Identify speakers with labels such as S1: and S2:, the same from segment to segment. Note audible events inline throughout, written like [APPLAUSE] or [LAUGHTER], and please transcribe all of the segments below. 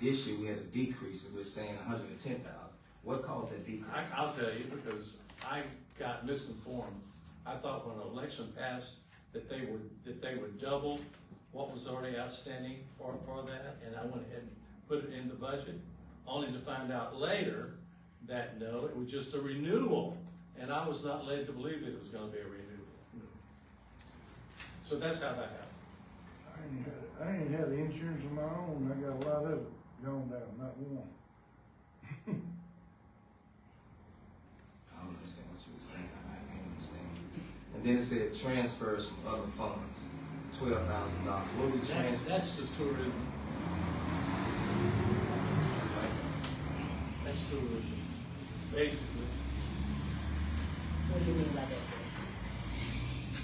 S1: This year, we had a decrease, and we're saying hundred and ten thousand. What caused that decrease?
S2: I, I'll tell you, because I got misinformed. I thought when the election passed, that they would, that they would double what was already outstanding for, for that, and I went ahead and put it in the budget, only to find out later that no, it was just a renewal, and I was not led to believe that it was gonna be a renewal. So that's how that happened.
S3: I ain't had- I ain't had insurance of my own, I got a lot of it gone down, not one.
S1: I don't understand what you were saying. I I can't understand. And then it said transfers from other funds, twelve thousand dollars. What we
S2: That's,
S1: transfer?
S2: that's just tourism, that's tourism, basically.
S4: What do you mean by that, Gerald?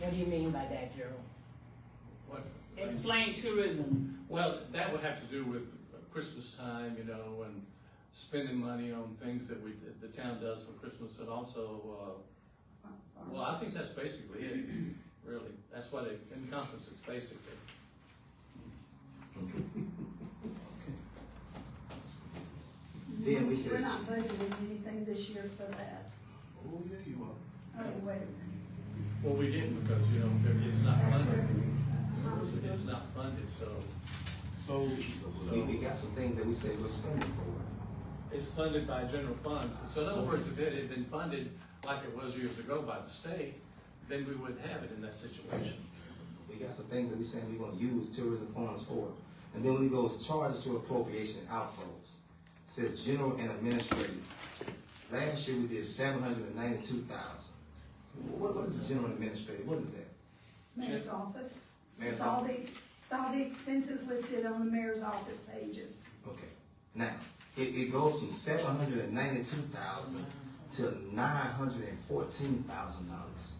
S4: What do you mean by that, Gerald?
S2: What-
S5: Explain tourism.
S2: Well, that would have to do with Christmas time, you know, and spending money on things that we, that the town does for Christmas and also, uh, well, I think that's basically it, really. That's what it encompasses basically.
S1: Then we said-
S6: We're not budgeting anything this year for that.
S2: Oh, yeah, you are.
S6: Oh, wait a minute.
S2: Well, we didn't because, you know, it's not
S6: That's
S2: funded.
S6: revenues.
S2: It's- It's not funded, so
S1: So. We, we got some things that we say we're spending for.
S2: it's funded by general funds. So in other words, if it had been funded like it was years ago by the state, then we wouldn't have it in that situation.
S1: We got some things that we saying we're gonna use tourism funds for. And then when it goes charges to appropriation outflows, it says general and administrative. Last year, we did seven hundred and ninety-two thousand. What, what is general and administrative? What is that?
S6: Mayor's office.
S1: Mayor's
S6: It's all
S1: office.
S6: the, it's all the expenses listed on the mayor's office pages.
S1: Okay, now, it, it goes from seven hundred and ninety-two thousand to nine hundred and fourteen thousand dollars.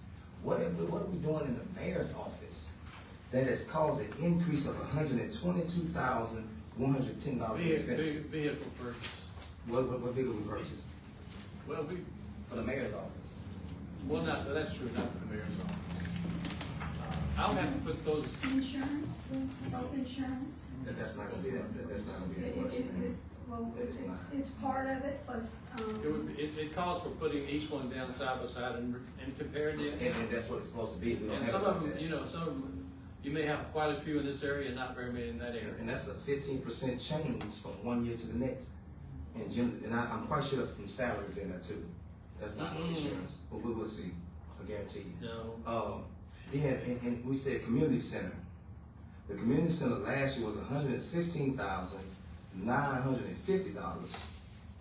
S1: What are, we- what are we doing in the mayor's office that has caused an increase of hundred and twenty-two thousand, one hundred and ten dollars in
S2: Vehicle,
S1: expenditure?
S2: vehicle purchase.
S1: What, what, what vehicle we purchased
S2: Well, we,
S1: for the mayor's office?
S2: well, not, that's true, not the mayor's office. Uh, I'll have to put those,
S6: Insurance, health insurance.
S1: That, that's not gonna be that, that- that's not gonna
S6: It-
S1: be that
S6: it-
S1: much,
S6: it-
S1: man.
S6: it- Well,
S1: It's
S6: it's,
S1: not.
S6: it's part of it, plus,
S2: it would,
S6: um,
S2: it, it calls for putting each one down side by side and, and comparing
S1: And,
S2: it.
S1: and that's what it's supposed to be, we don't
S2: And
S1: have
S2: some
S1: it
S2: of
S1: like
S2: them, you
S1: that.
S2: know, some, of them, you may have quite a few in this area and not very many in that area.
S1: And that's a fifteen percent change from one year to the next. And gen and I, I'm quite sure there's some salaries in there too. That's not on
S2: Mm.
S1: insurance, but we will see, I guarantee you.
S2: No,
S1: Um, then, and, and we said community center. The community center last year was hundred and sixteen thousand, nine hundred and fifty dollars.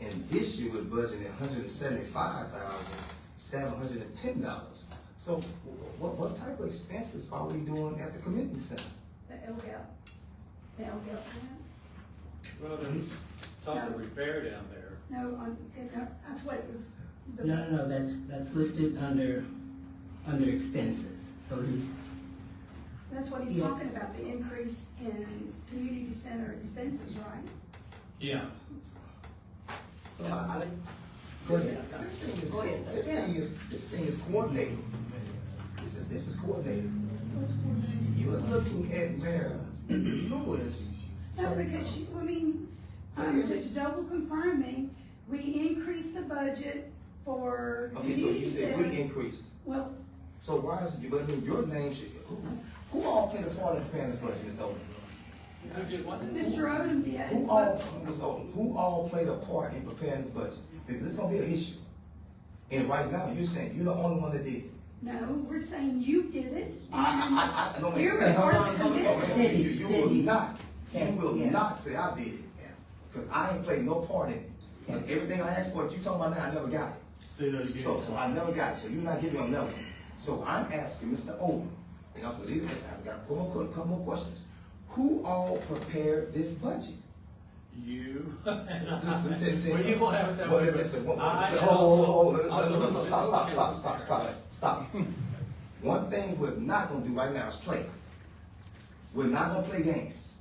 S1: And this year we're budgeting hundred and seventy-five thousand, seven hundred and ten dollars. So wh- what, what type of expenses are we doing at the community center?
S6: the LGAP. The LGAP, grant.
S2: well, there's talk of repair down there.
S6: no, on- and that- that's what it was. the-
S4: No, no, no, that's, that's listed under, under expenses, so this is,
S6: That's what he's
S4: Yeah.
S6: talking about, the increase in community center expenses, right?
S2: Yeah.
S1: So I, I, but this, this thing is, this thing is, this thing is coordinated. This is, this is coordinated. You're looking at Mayor Lewis.
S6: No, because she, I mean, I'm just double confirming, we increased the budget for
S1: Okay, so you
S6: community
S1: said we
S6: center.
S1: increased.
S6: Well,
S1: So why is, it- I mean, your name should, who, who all played a part in preparing this budget, Ms. Odom?
S2: Who did what?
S6: Mr. Odom
S1: Who
S6: did,
S1: all,
S6: but
S1: Ms. Odom, who all played a part in preparing this budget? Because it's gonna be an issue. And right now, you're saying you're the only one that did. it.
S6: no, we're saying you did it.
S1: I, I, I, I don't.
S6: You're
S4: Wait,
S6: a
S4: hold
S6: part
S4: on,
S6: of the
S4: hold on.
S6: committee.
S1: Okay, You you will
S4: Cindy.
S1: not, you
S4: Okay,
S1: will
S4: yeah.
S1: not say I did it, because I ain't played no part in it. Because everything I asked for, that you talking about now, I never got it.
S7: Say that again.
S1: So, so I never got it, so you're not giving them nothing. So I'm asking Mr. Odom, and I'm leaving, I've got a couple more, couple more questions. Who all prepared this budget?
S2: You.
S1: Listen, listen, listen.
S2: Well, you won't have it that
S1: Well,
S2: way. but
S1: listen, one-
S2: I- I-
S1: hold, hold, hold, hold.
S2: I'll-
S1: Listen,
S2: I'll-
S1: listen, Stop, stop, stop, stop, stop, stop. [LAUGHS] One thing we're not gonna do right now is play. We're not gonna play games.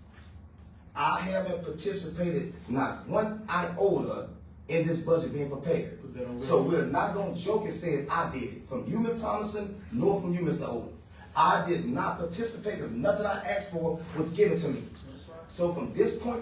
S1: I haven't participated not one iota in this budget being prepared.
S7: Put that on record.
S1: So we're not gonna joke and say I did it, from you, Ms. Thomason, nor from you, Mr. Odom. I did not participate, because nothing I asked for was given to me. So from this point